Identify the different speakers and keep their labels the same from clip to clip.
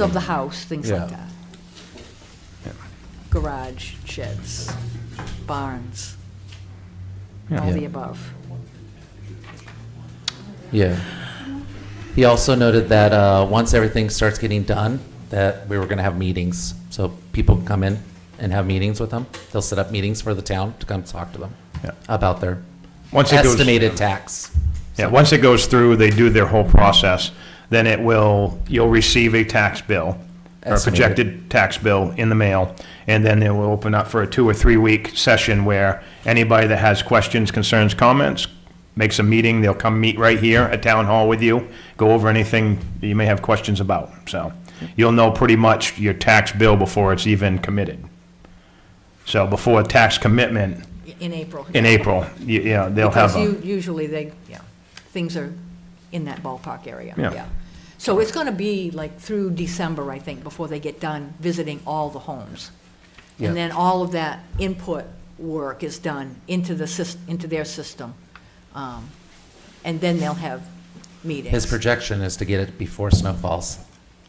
Speaker 1: of the house, things like
Speaker 2: Yeah.
Speaker 1: that. Garage, sheds, barns, all
Speaker 2: Yeah.
Speaker 1: the above.
Speaker 3: Yeah. He also noted that uh, once everything starts getting done, that we were going to have meetings. So people can come in and have meetings with them. They'll set up meetings for the town to come talk to them
Speaker 4: Yeah.
Speaker 3: about their
Speaker 4: Once it goes-
Speaker 3: estimated tax.
Speaker 4: Yeah, once it goes through, they do their whole process, then it will, you'll receive a tax bill, or a
Speaker 3: Estimated.
Speaker 4: projected tax bill in the mail, and then they will open up for a two or three-week session where anybody that has questions, concerns, comments, makes a meeting, they'll come meet right here at Town Hall with you, go over anything that you may have questions about, so. You'll know pretty much your tax bill before it's even committed. So before tax commitment
Speaker 1: In April.
Speaker 4: in April, you, you know, they'll have a.
Speaker 1: Because u- usually they, yeah, things are in that ballpark area,
Speaker 4: Yeah.
Speaker 1: yeah. So it's going to be like through December, I think, before they get done visiting all the homes.
Speaker 3: Yeah.
Speaker 1: And then all of that input work is done into the, sys- into their system. Um, And then they'll have meetings.
Speaker 3: His projection is to get it before snow falls,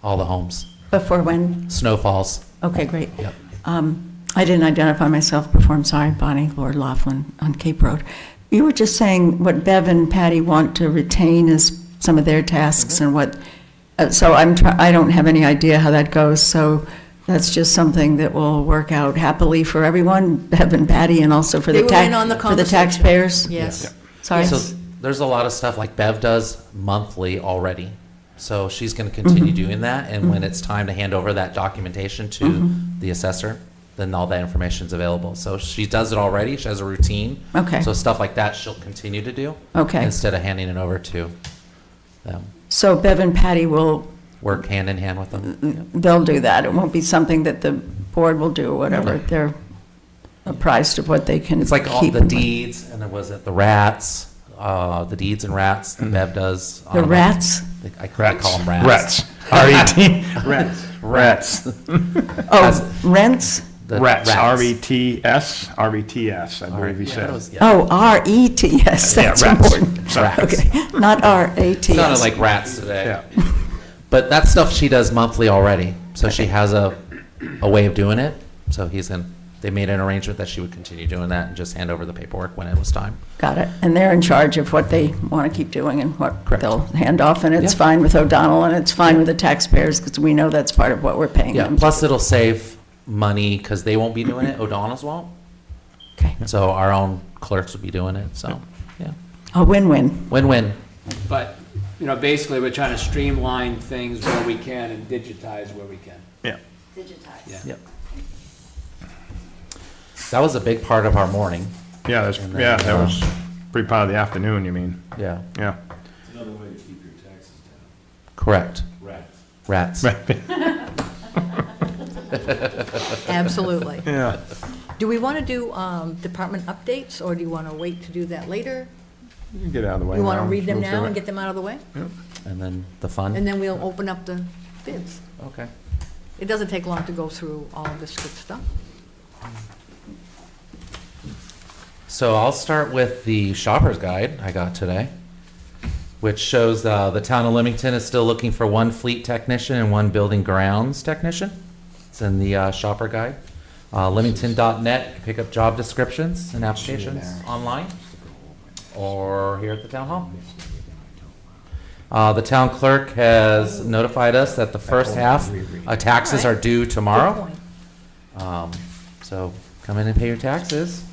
Speaker 3: all the homes.
Speaker 5: Before when?
Speaker 3: Snow falls.
Speaker 5: Okay, great.
Speaker 3: Yep.
Speaker 5: Um, I didn't identify myself before, I'm sorry, Bonnie Lord Laughlin on Cape Road. You were just saying what Bev and Patty want to retain is some of their tasks and what, uh, so I'm, try- I don't have any idea how that goes, so that's just something that will work out happily for everyone, Bev and Patty, and also for
Speaker 1: They
Speaker 5: the
Speaker 1: were in on the
Speaker 5: tax, for the
Speaker 1: conversation.
Speaker 5: taxpayers?
Speaker 1: Yes.
Speaker 5: Sorry?
Speaker 3: So there's a lot of stuff like Bev does monthly already. So she's going to continue
Speaker 5: Mm-hmm.
Speaker 3: doing that. And when it's time to hand over that documentation to
Speaker 5: Mm-hmm.
Speaker 3: the assessor, then all that information's available. So she does it already. She has a routine.
Speaker 5: Okay.
Speaker 3: So stuff like that she'll continue to do.
Speaker 5: Okay.
Speaker 3: Instead of handing it over to them.
Speaker 5: So Bev and Patty will,
Speaker 3: Work hand in hand with them.
Speaker 5: they'll do that, it won't be something that the board will do, or whatever,
Speaker 3: Okay.
Speaker 5: they're apprised of what they can
Speaker 3: It's like all
Speaker 5: keep
Speaker 3: the
Speaker 5: and what-
Speaker 3: deeds and then was it the rats, uh, the deeds and rats that Bev does. on
Speaker 5: The
Speaker 3: a-
Speaker 5: rats?
Speaker 3: I call them rats.
Speaker 4: Rats. E R-E-T. Rats. Rats.
Speaker 5: Oh, rents?
Speaker 3: The
Speaker 4: Rats. E R-E-T-S, R-E-T-S, E I believe he
Speaker 3: Yeah, I thought it was-
Speaker 4: said.
Speaker 3: yeah.
Speaker 5: Oh, R-E-T, yes,
Speaker 4: Yeah,
Speaker 5: that's
Speaker 4: rats.
Speaker 5: important.
Speaker 4: Sorry.
Speaker 5: Okay, not R-A-T.
Speaker 3: Sounded like rats today.
Speaker 4: Yeah.
Speaker 3: But that stuff she does monthly already. So she has a, a way of doing it. So he's in, they made an arrangement that she would continue doing that and just hand over the paperwork when it was time.
Speaker 5: Got it. And they're in charge of what they want to keep doing and what
Speaker 3: Correct.
Speaker 5: they'll hand off, and it's
Speaker 3: Yeah.
Speaker 5: fine with O'Donnell, and it's fine with the taxpayers, because we know that's part of what we're paying
Speaker 3: Yeah,
Speaker 5: them.
Speaker 3: plus it'll save money because they won't be doing it, O'Donnell's won't.
Speaker 5: Okay.
Speaker 3: So our own clerks will be doing it, so, yeah.
Speaker 5: A win-win.
Speaker 3: Win-win.
Speaker 6: But, you know, basically, we're trying to streamline things where we can and digitize where we can.
Speaker 4: Yeah.
Speaker 3: Yep. That was a big part of our morning,
Speaker 4: Yeah, that's,
Speaker 3: And then,
Speaker 4: yeah, that
Speaker 3: uh,
Speaker 4: was pretty part of the afternoon, you mean,
Speaker 3: yeah.
Speaker 4: yeah.
Speaker 3: Correct. Rats. Rats.
Speaker 1: Absolutely.
Speaker 4: Yeah.
Speaker 1: Do we want to do um, department updates, or do you want to wait to do that later?
Speaker 4: You can Get out of the way
Speaker 1: You want to
Speaker 4: now,
Speaker 1: read them
Speaker 4: move through
Speaker 1: now and
Speaker 4: it.
Speaker 1: get them out of the way?
Speaker 3: And then the
Speaker 1: And
Speaker 3: fun.
Speaker 1: then we'll open up the bids.
Speaker 3: Okay.
Speaker 1: It doesn't take long to go through all of this good stuff.
Speaker 3: So I'll start with the shopper's guide I got today, which shows uh, the town of Leamington is still looking for one fleet technician and one building grounds technician. It's in the uh, shopper guide. Uh, Leamington.net, you can pick up job descriptions and applications online or here at the town hall. Uh, the town clerk has notified us that the first half uh, taxes are due tomorrow.
Speaker 1: Good point.
Speaker 3: Um, so come in and pay your taxes.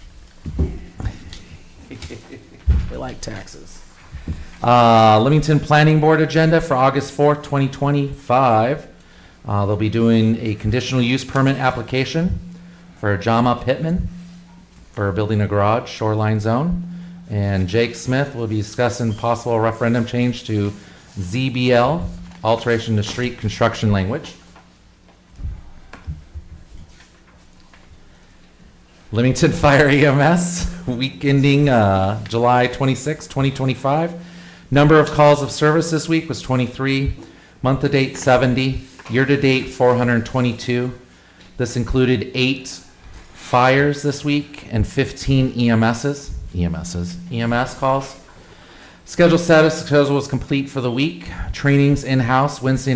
Speaker 3: we like taxes. Uh, Leamington Planning Board agenda for August 4th, 2025. Uh, they'll be doing a conditional use permit application for Jama Pittman for building a garage shoreline zone. And Jake Smith will be discussing possible referendum change to ZBL, alteration to street construction language. Leamington Fire E EMS, week ending uh, July 26, 2025. Number of calls of service this week was 23, month-to-date 70, year-to-date 422. This included eight fires this week and E 15 EMSs, EMSs, EMS calls. Schedule status, schedule was complete for the week. Trainings in-house Wednesday